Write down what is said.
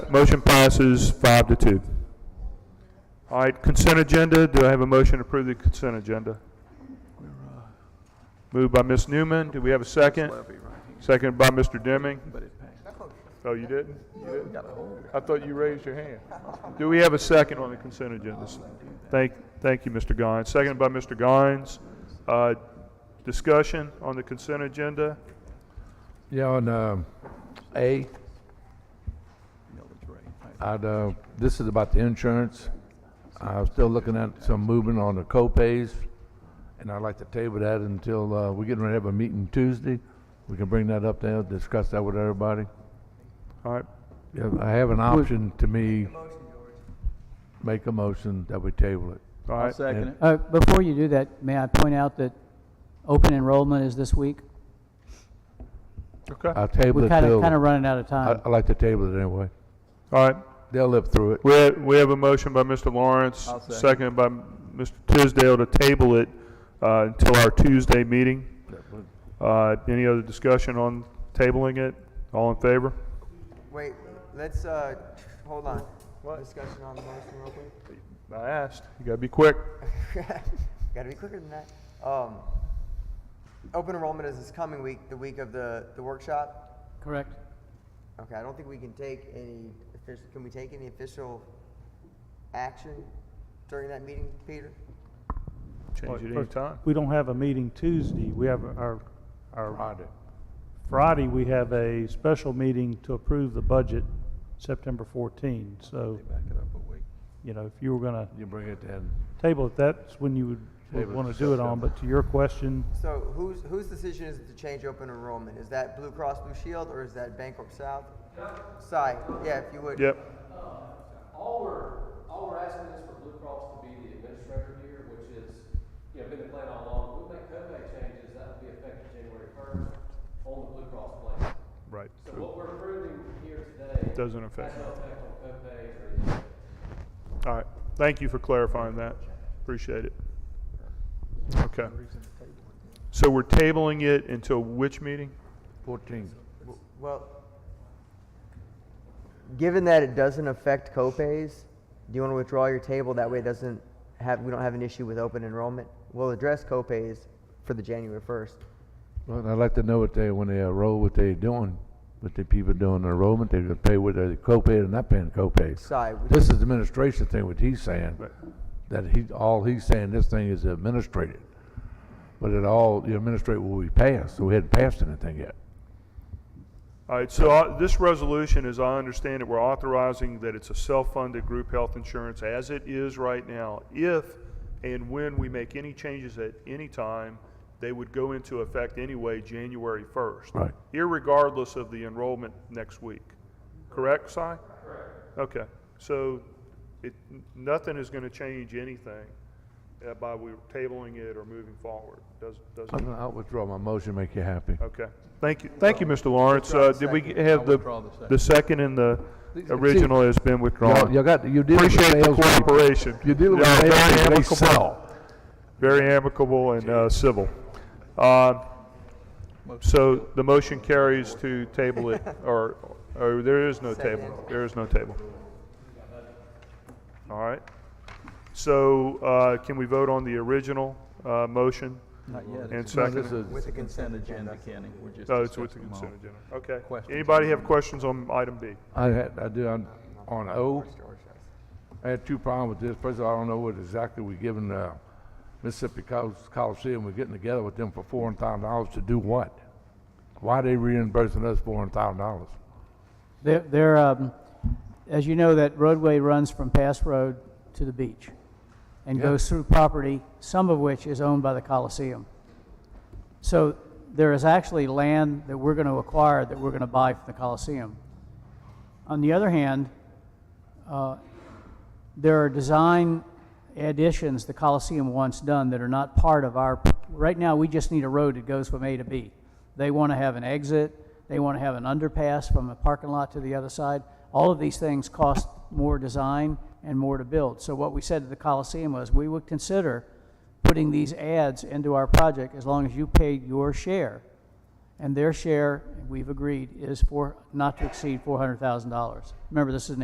Motion passes five to two. All right, consent agenda, do I have a motion to approve the consent agenda? Moved by Ms. Newman, do we have a second? Second by Mr. Deming. Oh, you didn't? You didn't? I thought you raised your hand. Do we have a second on the consent agenda? Thank, thank you, Mr. Guines. Second by Mr. Guines. Uh, Discussion on the consent agenda? Yeah, on um, A, I'd, uh, this is about the insurance. I'm still looking at some movement on the co-pays, and I'd like to table that until, uh, we're getting ready to have a meeting Tuesday. We can bring that up there, discuss that with everybody. All right, Yeah, I have an option to me. Make a motion that we table it. all I'll right. second it. Uh, Before you do that, may I point out that open enrollment is this week? Okay, all I'll table We're it kind of, till, kind of I, running out of time. I like to table it anyway. right. They'll live through it. We have, we have a motion by Mr. Lawrence, I'll second. seconded by Mr. Tisdale to table it uh, until our Tuesday meeting. Uh, Any other discussion on tabling it? All in favor? Wait, let's, uh, hold on. Discussion on the motion real quick. I asked. You gotta be quick. Gotta be quicker than that. Um, open enrollment is this coming week, the week of the, the workshop. Correct. Okay, I don't think we can take any official, can we take any official action during that meeting, Peter? Change it Well, any first, time. We don't have a meeting Tuesday. We have our, our, Friday. Friday, we have a special meeting to approve the budget, September 14. So, you know, if you were going to You bring it then. table it, that's when you would- Table would it want to to do it on. September. But to your question, So whose, whose decision is it to change open enrollment? Is that Blue Cross Blue Shield or is that Bancorp South? Si, yeah, if you would. Yep, All we're, all we're asking is for Blue Cross to be the administrator here, which is, you know, been the plan all along. We make copay changes, that will be effective January first on the Blue Cross plan. right. So what we're approving here today. Doesn't affect Has it. no effect on copays or anything. All right. Thank you for clarifying that. Appreciate it. Okay. So we're tabling it until which meeting? Fourteen. Well, given that it doesn't affect copays, do you want to withdraw your table? That way it doesn't have, we don't have an issue with open enrollment. We'll address copays for the January first. Well, I'd like to know what they, when they enroll, what they doing, what the people doing enrollment, they gonna pay what they co-pay or not paying co-pay. Side, would This is the administration thing, what he's saying, that he, all he's saying, this thing is administrated. But it all, the administrator will be passed, so we hadn't passed anything yet. All right, so uh, this resolution, as I understand it, we're authorizing that it's a self-funded group health insurance as it is right now. If and when we make any changes at any time, they would go into effect anyway, January 1st. Right. Irregardless of the enrollment next week. Correct, Si? Correct. Okay, so it, n- nothing is going to change anything uh, by we tabling it or moving forward. Does, doesn't. I'm gonna, I'll withdraw my motion, make you happy. Okay, thank you, thank you, Mr. Lawrence. Uh, Did we g- have the, the second and the original has been Y'all, withdrawn? y'all got, you dealing with Appreciate the salespeople. cooperation. You're dealing with Y'all are very salespeople, they amicable. sell. Very amicable and uh, civil. Um, So the motion carries to table it, or, or there is no table, there is no table. All right, so uh, can we vote on the original uh, motion? Not yet. And It's No, this second? is- with the consent agenda, Kenny. We're just Oh, it's with the discussing them all. consent agenda, okay. Questions Anybody on have questions on item B? I had, I do, on, on O, I had two problems with this. First of all, I don't know what exactly we're giving, uh, Mississippi Col- Coliseum, we're getting together with them for four hundred thousand dollars to do what? Why are they reimbursing us four hundred thousand dollars? There, there, um, as you know, that roadway runs from Pass Road to the beach and Yeah. goes through property, some of which is owned by the Coliseum. So there is actually land that we're going to acquire that we're going to buy from the Coliseum. On the other hand, uh, there are design additions the Coliseum wants done that are not part of our, right now, we just need a road that goes from A to B. They want to have an exit, they want to have an underpass from a parking lot to the other side. All of these things cost more design and more to build. So what we said to the Coliseum was, we would consider putting these ads into our project as long as you paid your share. And their share, we've agreed, is for, not to exceed $400,000. Remember, this is an